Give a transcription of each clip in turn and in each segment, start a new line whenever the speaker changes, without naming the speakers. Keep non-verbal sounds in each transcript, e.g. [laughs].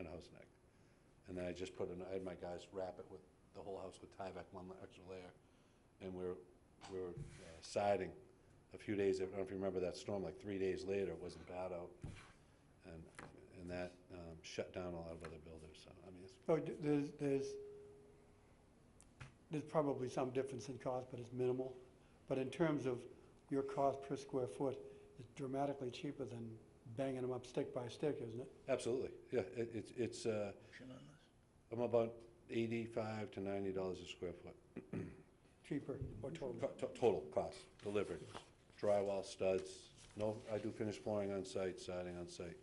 Resnick. And then I just put, an I had my guys wrap it with, the whole house with Tyvek, one la- extra layer. And we're, we were uh, siding a few days, I don't know if you remember that storm, like three days later, it wasn't bad out. And, and that um, shut down a lot of other builders, so, I mean, it's,
So Oh, d- there's, there's, there's probably some difference in cost, but it's minimal. But in terms of your cost per square foot, it's dramatically cheaper than banging them up stick by stick, isn't it?
absolutely, yeah, it, it's, it's, uh, I'm about eighty-five to ninety dollars a square foot.
Cheaper or total?
Co- to- Total cost delivered, drywall studs, no, I do finished flooring on site, siding on site.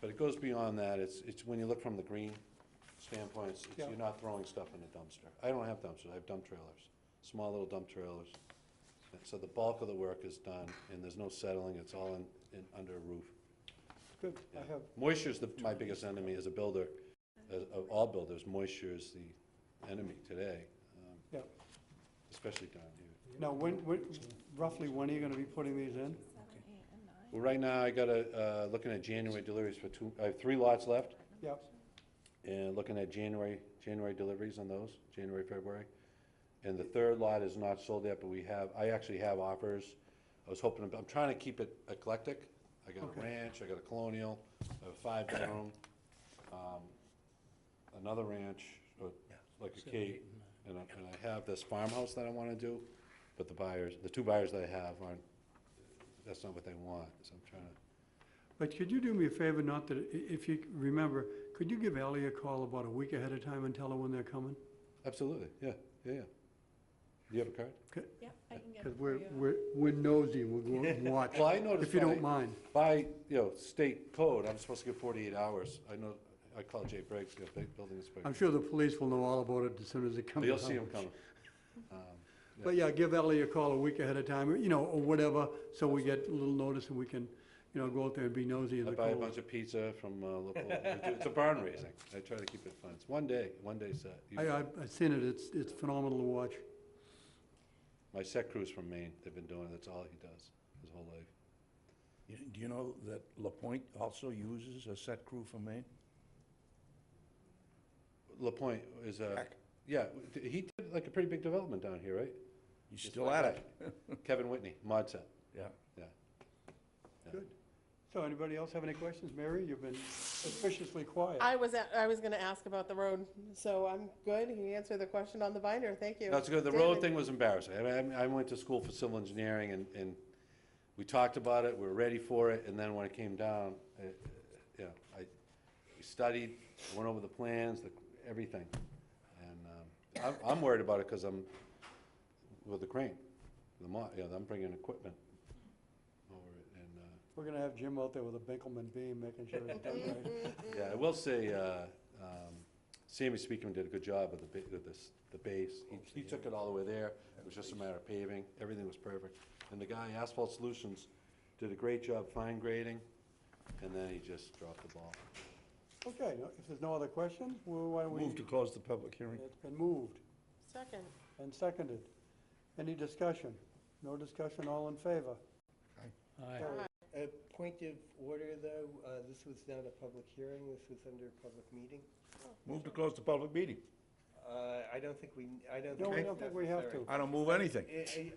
But it goes beyond that, it's, it's when you look from the green standpoint, it's- it's-
Yeah.
you're not throwing stuff in a dumpster. I don't have dumpsters, I have dump trailers, small little dump trailers. And So the bulk of the work is done, and there's no settling, it's all in, in, under a roof.
Good, I have,
Moisture's the, my biggest enemy as a builder, as- of all builders, moisture is the enemy today, um,
yeah.
especially down here.
Now, when, when, roughly when are you gonna be putting these in?
Seven, eight, and nine.
Well, right now, I got a, uh, looking at January deliveries for two, I have three lots left,
Yep,
and looking at January, January deliveries on those, January, February. And the third lot is not sold yet, but we have, I actually have offers. I was hoping, I'm trying to keep it eclectic. I got a
Okay.
ranch, I got a colonial, I have a five-bedroom, um, another ranch, uh, like a cape, and I, and I have this farmhouse that I wanna do, but the buyers, the two buyers that I have aren't, that's not what they want, so I'm trying to
but could you do me a favor, not that, i- if you remember, could you give Ellie a call about a week ahead of time and tell her when they're coming?
Absolutely, yeah, yeah, yeah. Do you have a card?
Yeah, I can get
Because
it for
we're,
you.
we're, we're nosy, we're going to watch,
[laughs] Well, I noticed
if you don't
by-
mind.
By, you know, state code, I'm supposed to give forty-eight hours. I know, I called Jay Briggs, the bu- building
I'm
inspector.
sure the police will know all about it as soon as they come.
But You'll
to
see him
Howard.
coming. Um,
But yeah, give Ellie a call a week ahead of time, or, you know, or whatever, so we get a little notice and we can, you know, go out there and be nosy in
I
the
buy a
cold.
bunch of pizza from uh, local, we do- it's a barn raising. I try to keep it fun. It's one day, one day set. You-
I, I've I've seen it, it's, it's phenomenal to watch.
My set crew's from Maine. They've been doing it. That's all he does his whole life.
You- Do you know that La Pointe also uses a set crew from Maine?
LaPointe is a, yeah, th- he did like a pretty big development down here, right?
He's
Just
still
like
at it.
Kevin Whitney, mod set,
Yeah.
yeah. Yeah.
Good. So anybody else have any questions? Mary, you've been suspiciously quiet.
I was, at- I was gonna ask about the road, so I'm good. He answered the question on the binder, thank you.
That's good. The road [laughs]
David.
thing was embarrassing. I, mean, I went to school for civil engineering and, and we talked about it, we were ready for it, and then when it came down, it, you know, I, we studied, went over the plans, the, everything. And, um, I'm, I'm worried about it because I'm with the crane, the mo, you know, I'm bringing equipment over it and, uh,
We're gonna have Jim out there with a Binkelman beam, making sure it's done
[laughs]
right.
yeah, I will say, uh, um, Sammy Speakman did a good job with the, ba- with this, the base. He, he took it all the way there. It was just a matter of paving. Everything was perfect. And the guy, Asphalt Solutions, did a great job fine grading, and then he just dropped the ball.
Okay, no- if there's no other questions, well, why don't we?
Move to close the public hearing.
It's been moved
Second,
and seconded. Any discussion? No discussion, all in favor? Carried.
A point of order, though, uh, this was not a public hearing, this was under a public meeting.
Move to close the public meeting.
Uh, I don't think we, I don't think.
No, I
it's
don't think we have
necessary.
to.
I don't move anything.
I, I- I,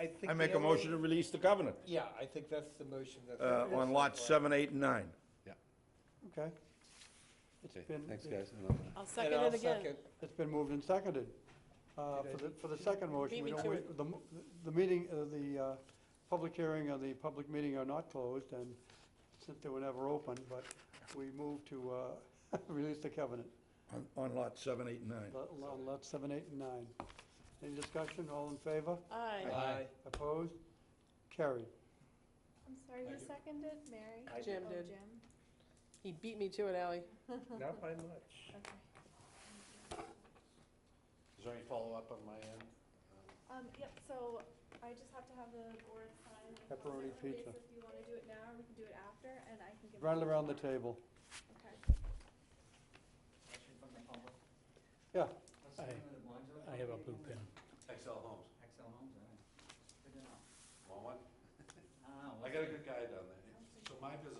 I think.
I make
the
a
only-
motion to release the covenant
Yeah, I think that's the motion that's.
uh, on lots seven, eight, and nine.
Okay. It's
Okay,
been,
thanks, guys. And I'll-
I'll
And
second
I'll
it again.
second.
It's been moved and seconded. Uh, For the, for the second motion,
Beat
we
me
don't
to
wait, the, mo- the meeting, uh, the uh, public hearing and the public meeting are not closed, and since they were never open, but we move to uh, [laughs] release the covenant
On- On lot seven, eight, and nine.
Lot- lot lot seven, eight, and nine. Any discussion, all in favor?
Aye.
Aye.
Opposed? Carried.
I'm sorry, who seconded? Mary?
I
Oh,
Jim did.
Jim.
He beat me to it, Ally.
Not by much.
Okay.
Is there any follow-up on my end?
Um, yep, so I just have to have the board sign. the
Pepperoni
consent release
pizza.
If you want to do it now, or we can do it after, and I can give.
Run
it to
around the
you tomorrow.
table.
Okay.
Yeah,
I have a blue pen.
Excel Homes.
Excel Homes, all right. Good to know. Ah,
Want one?
I don't know,
I
what's
got a
the-
good guy down there. So my business